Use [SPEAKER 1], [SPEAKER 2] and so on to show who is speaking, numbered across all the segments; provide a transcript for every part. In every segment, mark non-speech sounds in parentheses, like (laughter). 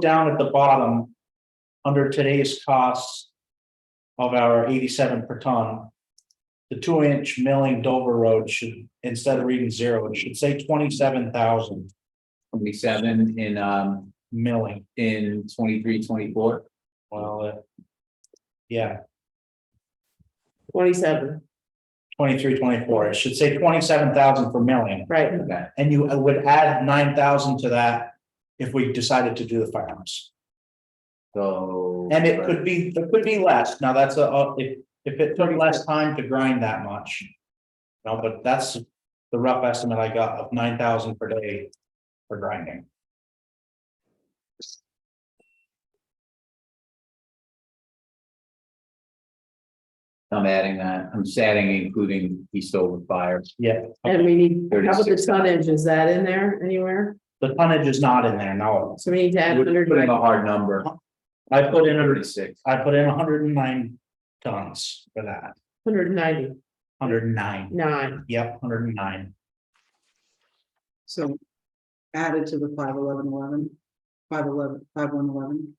[SPEAKER 1] down at the bottom, under today's costs of our eighty-seven per ton, the two-inch milling Dover Road should, instead of reading zero, it should say twenty-seven thousand
[SPEAKER 2] twenty-seven in, um,
[SPEAKER 1] milling.
[SPEAKER 2] in twenty-three, twenty-four.
[SPEAKER 1] Well, uh, yeah,
[SPEAKER 3] Twenty-seven,
[SPEAKER 1] twenty-three, twenty-four. It should say twenty-seven thousand for milling.
[SPEAKER 3] right,
[SPEAKER 2] Okay,
[SPEAKER 1] And you uh, would add nine thousand to that if we decided to do the firehouse.
[SPEAKER 2] so.
[SPEAKER 1] And it could be, it could be less. Now, that's a, a- if, if it took less time to grind that much. No, but that's the rough estimate I got of nine thousand per day for grinding.
[SPEAKER 2] I'm adding that, I'm just adding including Eastover Fire.
[SPEAKER 1] Yeah,
[SPEAKER 3] and we need, how about the
[SPEAKER 2] 36.
[SPEAKER 3] tonnage, is that in there anywhere?
[SPEAKER 1] the tonnage is not in there, no.
[SPEAKER 3] So we need to add
[SPEAKER 2] We're
[SPEAKER 3] hundred,
[SPEAKER 2] Putting a hard number.
[SPEAKER 1] I put in, a-
[SPEAKER 2] Thirty-six.
[SPEAKER 1] I put in hundred and nine tons for that,
[SPEAKER 3] hundred and ninety-nine,
[SPEAKER 1] hundred and nine, yep, hundred and nine.
[SPEAKER 4] So added to the five eleven eleven, five eleven, five one eleven.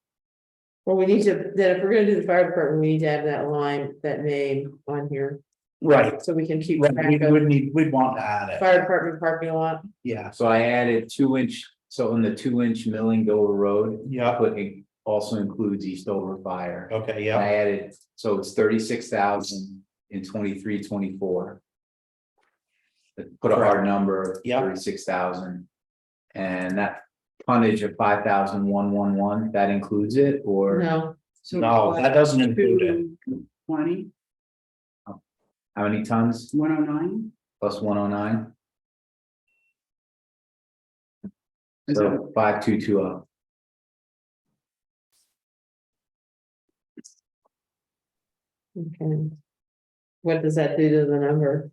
[SPEAKER 3] well, we need to, then if we're gonna do the fire department, we need to have that line, that name on here,
[SPEAKER 1] Right,
[SPEAKER 3] so we can keep
[SPEAKER 1] right, we
[SPEAKER 3] track of
[SPEAKER 1] would need, we'd want to add it,
[SPEAKER 3] fire department parking lot.
[SPEAKER 1] yeah,
[SPEAKER 2] So I added two inch, so in the two inch milling Dover Road, I
[SPEAKER 1] yeah,
[SPEAKER 2] put it also includes Eastover Fire.
[SPEAKER 1] okay,
[SPEAKER 2] I
[SPEAKER 1] yeah,
[SPEAKER 2] added, so it's thirty-six thousand in twenty-three, twenty-four. Put a hard number of
[SPEAKER 1] Yeah.
[SPEAKER 2] thirty-six thousand. And that tonnage of five thousand one one one, that includes it or
[SPEAKER 3] No,
[SPEAKER 1] no, that doesn't include it,
[SPEAKER 4] Twenty,
[SPEAKER 2] how many tons
[SPEAKER 4] one oh nine,
[SPEAKER 2] plus one oh nine?
[SPEAKER 4] is that,
[SPEAKER 2] So five two two oh.
[SPEAKER 3] okay. What does that do to the number?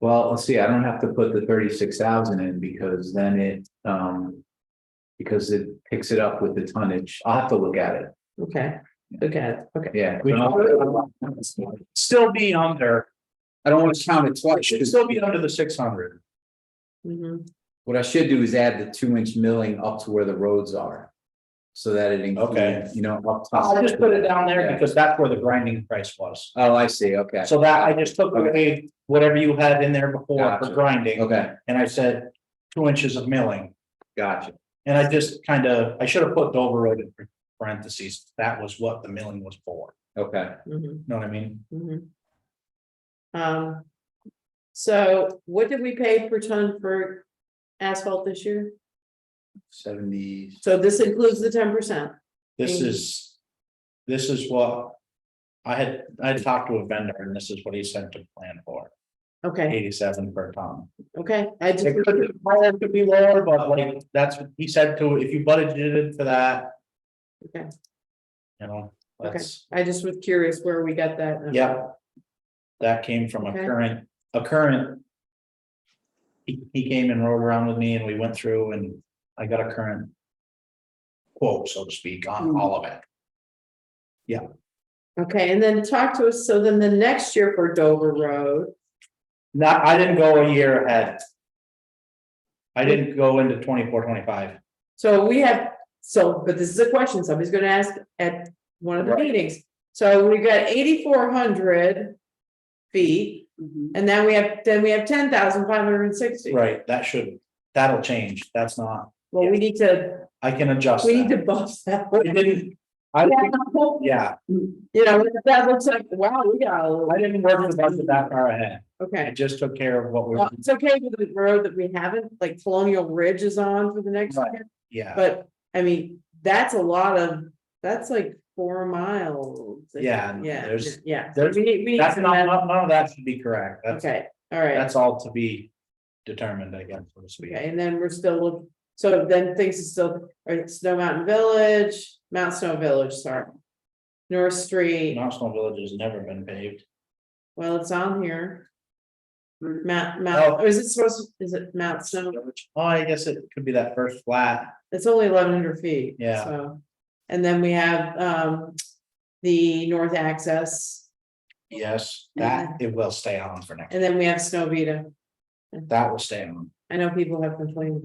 [SPEAKER 2] Well, let's see, I don't have to put the thirty-six thousand in because then it, um. Because it picks it up with the tonnage. I'll have to look at it.
[SPEAKER 3] Okay, okay, okay,
[SPEAKER 2] Yeah.
[SPEAKER 1] We- still be under,
[SPEAKER 2] I don't want to count it
[SPEAKER 1] it
[SPEAKER 2] twice.
[SPEAKER 1] should still be under the six hundred.
[SPEAKER 3] Mhm.
[SPEAKER 2] What I should do is add the two inch milling up to where the roads are. So that it
[SPEAKER 1] Okay.
[SPEAKER 2] includes, you know, up top.
[SPEAKER 1] I'll just put it down there
[SPEAKER 2] Yeah.
[SPEAKER 1] because that's where the grinding price was.
[SPEAKER 2] Oh, I see, okay,
[SPEAKER 1] So that I just took away whatever you had in there before for
[SPEAKER 2] Gotcha.
[SPEAKER 1] grinding,
[SPEAKER 2] okay,
[SPEAKER 1] and I said two inches of milling.
[SPEAKER 2] gotcha,
[SPEAKER 1] And I just kind of, I should have put Dover Road in parentheses. That was what the milling was for.
[SPEAKER 2] okay.
[SPEAKER 3] mhm,
[SPEAKER 1] You Know what I mean?
[SPEAKER 3] mhm. Um, so what did we pay per ton for asphalt this year?
[SPEAKER 2] Seventy,
[SPEAKER 3] So this includes the ten percent,
[SPEAKER 1] This
[SPEAKER 3] Thank you.
[SPEAKER 1] is, this is what I had, I had talked to a vendor and this is what he sent to plan for,
[SPEAKER 3] okay,
[SPEAKER 1] eighty-seven per ton.
[SPEAKER 3] okay, I just,
[SPEAKER 1] It could be higher, it could be lower, but like, that's, what he said to, if you budgeted it for that.
[SPEAKER 3] Okay.
[SPEAKER 1] You know,
[SPEAKER 3] Okay.
[SPEAKER 1] that's.
[SPEAKER 3] I just was curious where we got that. number.
[SPEAKER 1] Yeah. That came from a
[SPEAKER 3] Okay.
[SPEAKER 1] current, a current. He, he came and rode around with me and we went through and I got a current. Quote, so to speak,
[SPEAKER 3] Hmm.
[SPEAKER 1] on all of it.
[SPEAKER 3] Okay, and then talk to us, so then the next year for Dover Road,
[SPEAKER 1] Not, I didn't go a year ahead. I didn't go into 24, 25.
[SPEAKER 3] so we have, so, but this is a question somebody's gonna ask at one of the
[SPEAKER 1] Right.
[SPEAKER 3] meetings. So we got eighty-four hundred feet,
[SPEAKER 4] mhm,
[SPEAKER 3] and then we have, then we have ten thousand five hundred and sixty.
[SPEAKER 1] right, that should, that'll change, that's not,
[SPEAKER 3] Well, we need to,
[SPEAKER 1] I can adjust
[SPEAKER 3] we need
[SPEAKER 1] that.
[SPEAKER 3] to bust that.
[SPEAKER 1] I
[SPEAKER 3] (laughs)
[SPEAKER 1] didn't, I, didn't- yeah,
[SPEAKER 3] You know, that looks like, wow, we got a
[SPEAKER 1] I
[SPEAKER 3] lot,
[SPEAKER 1] didn't work the budget that far ahead, I
[SPEAKER 3] okay.
[SPEAKER 1] just took care of what we,
[SPEAKER 3] Well, It's okay with the road that we haven't, like Colonial Ridge is on for the next
[SPEAKER 1] Right.
[SPEAKER 3] year.
[SPEAKER 1] yeah,
[SPEAKER 3] But, I mean, that's a lot of, that's like four miles.
[SPEAKER 1] Yeah,
[SPEAKER 3] Yeah,
[SPEAKER 1] there's-
[SPEAKER 3] yeah.
[SPEAKER 1] there's-
[SPEAKER 3] We need, we need
[SPEAKER 1] that's
[SPEAKER 3] some
[SPEAKER 1] not,
[SPEAKER 3] of
[SPEAKER 1] none none of that should be correct,
[SPEAKER 3] that.
[SPEAKER 1] that's.
[SPEAKER 3] Okay, all right,
[SPEAKER 1] That's all to be determined, I guess, so to speak.
[SPEAKER 3] okay, and then we're still, look- so then things is still, or Snow Mountain Village, Mount Snow Village, sorry. North Street,
[SPEAKER 1] Knoxville Village has never been paved.
[SPEAKER 3] well, it's on here.
[SPEAKER 4] Mhm.
[SPEAKER 3] Mount, Mount, or is it supposed, to- is it Mount Snow?
[SPEAKER 1] Oh, I guess it could be that first flat.
[SPEAKER 3] It's only eleven hundred feet.
[SPEAKER 1] Yeah.
[SPEAKER 3] so. And then we have, um, the north access,
[SPEAKER 1] Yes, that it will stay on for next.
[SPEAKER 3] and then we have Snow Vita.
[SPEAKER 1] That will stay on.
[SPEAKER 3] I know people have complained about